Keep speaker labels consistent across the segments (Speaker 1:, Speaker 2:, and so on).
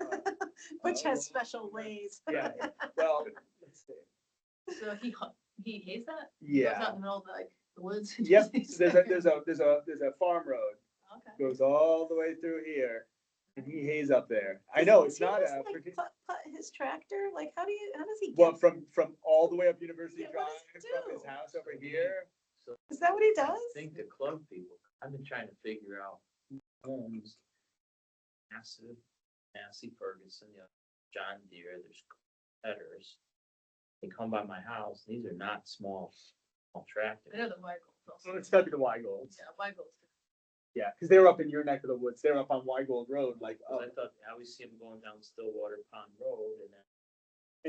Speaker 1: Which has special ways.
Speaker 2: uh, Yeah, well, let's see.
Speaker 3: So he, hu- he hates that? Goes
Speaker 2: yeah.
Speaker 3: out in the middle of like the woods? and
Speaker 2: Yep,
Speaker 3: just-
Speaker 2: so there's a, there's a, there's a, there's a farm road,
Speaker 3: Okay.
Speaker 2: goes all the way through here, and he hays up there. I know,
Speaker 1: Does
Speaker 2: it's
Speaker 1: he
Speaker 2: not
Speaker 1: just,
Speaker 2: a,
Speaker 1: like,
Speaker 2: partic-
Speaker 1: Putt, putt his tractor, like, how do you, how does he
Speaker 2: well,
Speaker 1: get,
Speaker 2: from, from all the way up University
Speaker 1: Yeah,
Speaker 2: Drive,
Speaker 1: what does he
Speaker 2: from his
Speaker 1: do?
Speaker 2: house over here.
Speaker 1: is that what he
Speaker 4: I
Speaker 1: does?
Speaker 4: think the club people, I've been trying to figure out who owns massive, Massey Ferguson, you know, John Deere, there's headers. They come by my house, these are not small, small
Speaker 3: I know
Speaker 4: tractors.
Speaker 3: the Weigels
Speaker 2: Well,
Speaker 3: also.
Speaker 2: it's gotta be the Weigolds.
Speaker 3: Yeah, Weigels.
Speaker 2: Yeah, because they were up in your neck of the woods. They were up on Weigold Road, like,
Speaker 4: 'Cause
Speaker 2: oh,
Speaker 4: I thought, I always see them going down Stillwater Pond Road and then.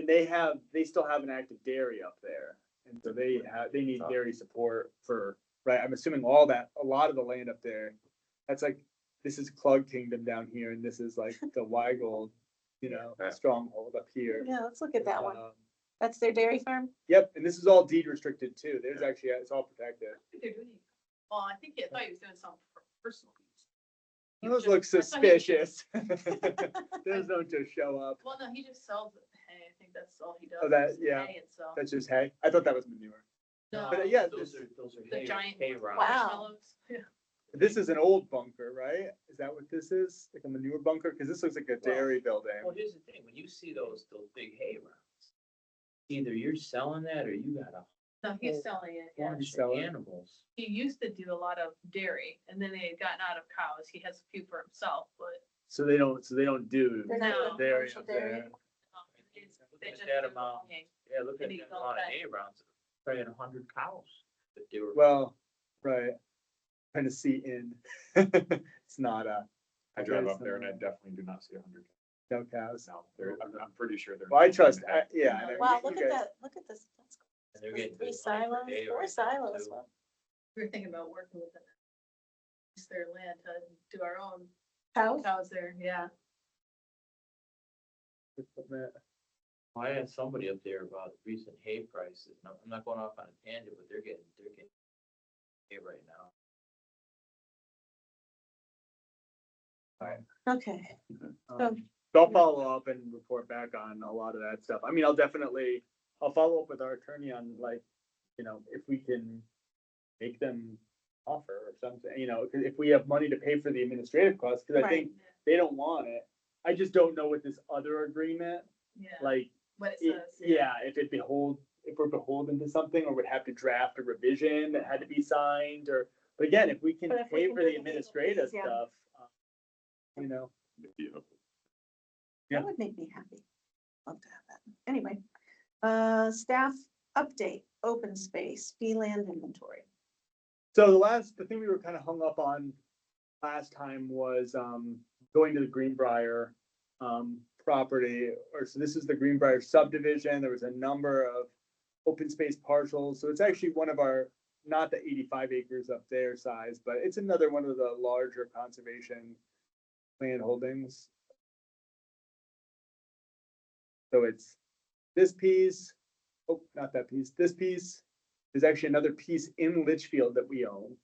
Speaker 2: and they have, they still have an active dairy up there. And so they have, they need dairy support for, right, I'm assuming all that, a lot of the land up there. That's like, this is Clug Kingdom down here and this is like the Weigold, you know,
Speaker 4: Yeah.
Speaker 2: stronghold up here.
Speaker 1: Yeah, let's look at that one.
Speaker 2: Um,
Speaker 1: That's their dairy farm?
Speaker 2: Yep, and this is all deed restricted too. There's actually, it's all protected.
Speaker 3: I think they're doing, it. well, I think, he- I thought he was doing some for personal use. He
Speaker 2: Those
Speaker 3: just-
Speaker 2: look
Speaker 3: I thought he was just-
Speaker 2: suspicious. Those don't just show up.
Speaker 3: Well, no, he just sells it. Hey, I think that's all he does.
Speaker 2: Oh, that-
Speaker 3: is
Speaker 2: yeah.
Speaker 3: hay and sell.
Speaker 2: That's just hay. I thought that was manure.
Speaker 3: No,
Speaker 2: But, uh, yeah,
Speaker 4: Those
Speaker 2: this-
Speaker 4: are, those are
Speaker 3: The
Speaker 4: hay,
Speaker 3: giant
Speaker 4: hay rods.
Speaker 1: Wow.
Speaker 3: marshmallows. Yeah.
Speaker 2: This is an old bunker, right? Is that what this is? Like a manure bunker? Because this looks like a dairy
Speaker 4: Well,
Speaker 2: building.
Speaker 4: here's the thing, when you see those, those big hay rounds, either you're selling that or you got a
Speaker 3: No, he's selling it, yeah.
Speaker 4: bunch of
Speaker 2: selling.
Speaker 4: animals.
Speaker 3: He used to do a lot of dairy and then they had gotten out of cows. He has a few for himself, but
Speaker 2: So they don't, so they don't do
Speaker 1: They're not
Speaker 3: No.
Speaker 2: dairy
Speaker 1: commercial
Speaker 2: up there.
Speaker 1: dairy.
Speaker 3: um, it's-
Speaker 4: Look
Speaker 3: they
Speaker 4: at
Speaker 3: just.
Speaker 4: that
Speaker 3: do
Speaker 4: amount.
Speaker 3: hay.
Speaker 4: Yeah, look at
Speaker 3: Maybe
Speaker 4: that, a
Speaker 3: go
Speaker 4: lot of
Speaker 3: back.
Speaker 4: hay rounds, probably a hundred cows that they were.
Speaker 2: Well, right. Trying to see in. It's not a.
Speaker 5: I drive up there and I definitely do not see a hundred
Speaker 2: No cows.
Speaker 5: now. There, I'm, I'm pretty sure they're.
Speaker 2: Well, I trust, I, yeah. I know.
Speaker 1: Wow,
Speaker 2: You
Speaker 1: look at
Speaker 2: guys-
Speaker 1: that, look at this. That's cool.
Speaker 4: and they're
Speaker 1: There's
Speaker 4: getting
Speaker 1: Three
Speaker 4: good
Speaker 1: silos,
Speaker 4: money per day
Speaker 1: four
Speaker 4: right now,
Speaker 1: silos.
Speaker 4: too.
Speaker 1: Wow.
Speaker 3: We were thinking about working with them. Use their land to do our own
Speaker 1: Cows?
Speaker 3: cows there, yeah.
Speaker 4: I had somebody up there about recent hay prices, and I'm I'm not going off on a tangent, but they're getting, they're getting hay right now.
Speaker 1: Okay, Oh,
Speaker 2: Um, So I'll follow up and report back on a lot of that stuff. I mean, I'll definitely, I'll follow up with our attorney on like, you know, if we can make them offer or something, you know, 'cause if we have money to pay for the administrative costs, because I
Speaker 1: Right.
Speaker 2: think they don't want it. I just don't know with this other agreement,
Speaker 3: Yeah,
Speaker 2: like,
Speaker 3: what it
Speaker 2: it-
Speaker 3: says.
Speaker 2: yeah, if it behold, if we're beholden to something or would have to draft a revision that had to be signed or, but again, if we can
Speaker 1: But if we
Speaker 2: pay
Speaker 1: can
Speaker 2: for
Speaker 1: do
Speaker 2: the
Speaker 1: the legal fees,
Speaker 2: administrative
Speaker 1: yeah.
Speaker 2: stuff, uh, you know. Yeah.
Speaker 1: that would make me happy. Love to have that. Anyway, uh, staff update, open space, fee land inventory.
Speaker 2: So the last, the thing we were kind of hung up on last time was um going to the Greenbrier um property, or so this is the Greenbrier subdivision. There was a number of open space parcels. So it's actually one of our, not the eighty-five acres up there size, but it's another one of the larger conservation land holdings. So it's this piece, oh, not that piece, this piece, there's actually another piece in Litchfield that we own.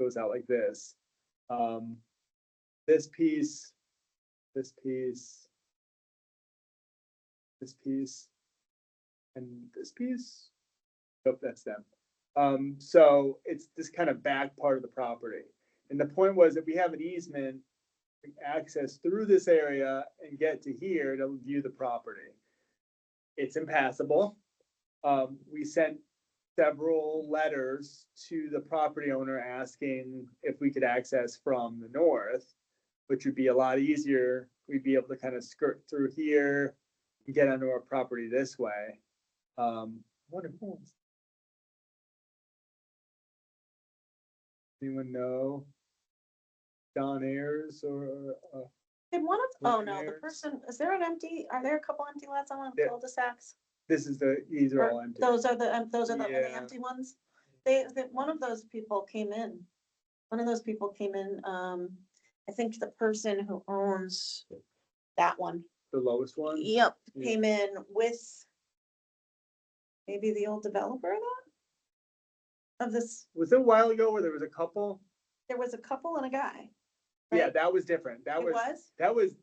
Speaker 2: Goes out like this. Um, this piece, this piece, this piece, and this piece. Nope, that's them. Um, so it's this kind of back part of the property. And the point was that we have an easement to access through this area and get to here to view the property. It's impassable. Um, we sent several letters to the property owner asking if we could access from the north, which would be a lot easier. We'd be able to kind of skirt through here, and get onto our property this way. Um, what if- Anyone know? Don Ayers or, uh,
Speaker 1: Did one of, oh
Speaker 2: Look
Speaker 1: no, the
Speaker 2: there.
Speaker 1: person, is there an empty, are there a couple empty lots on one of the
Speaker 2: There-
Speaker 1: cul-de-sacs?
Speaker 2: this is the, these are
Speaker 1: Or
Speaker 2: all empty.
Speaker 1: Those are the, um, those are the only
Speaker 2: Yeah.
Speaker 1: empty ones? They, that, one of those people came in. One of those people came in, um, I think the person who owns that one.
Speaker 2: The lowest one?
Speaker 1: Yep,
Speaker 2: Yeah.
Speaker 1: came in with maybe the old developer of that? Of this,
Speaker 2: Was it a while ago where there was a couple?
Speaker 1: there was a couple and a guy.
Speaker 2: Yeah,
Speaker 1: right?
Speaker 2: that was different. That
Speaker 1: It
Speaker 2: was,
Speaker 1: was?
Speaker 2: that was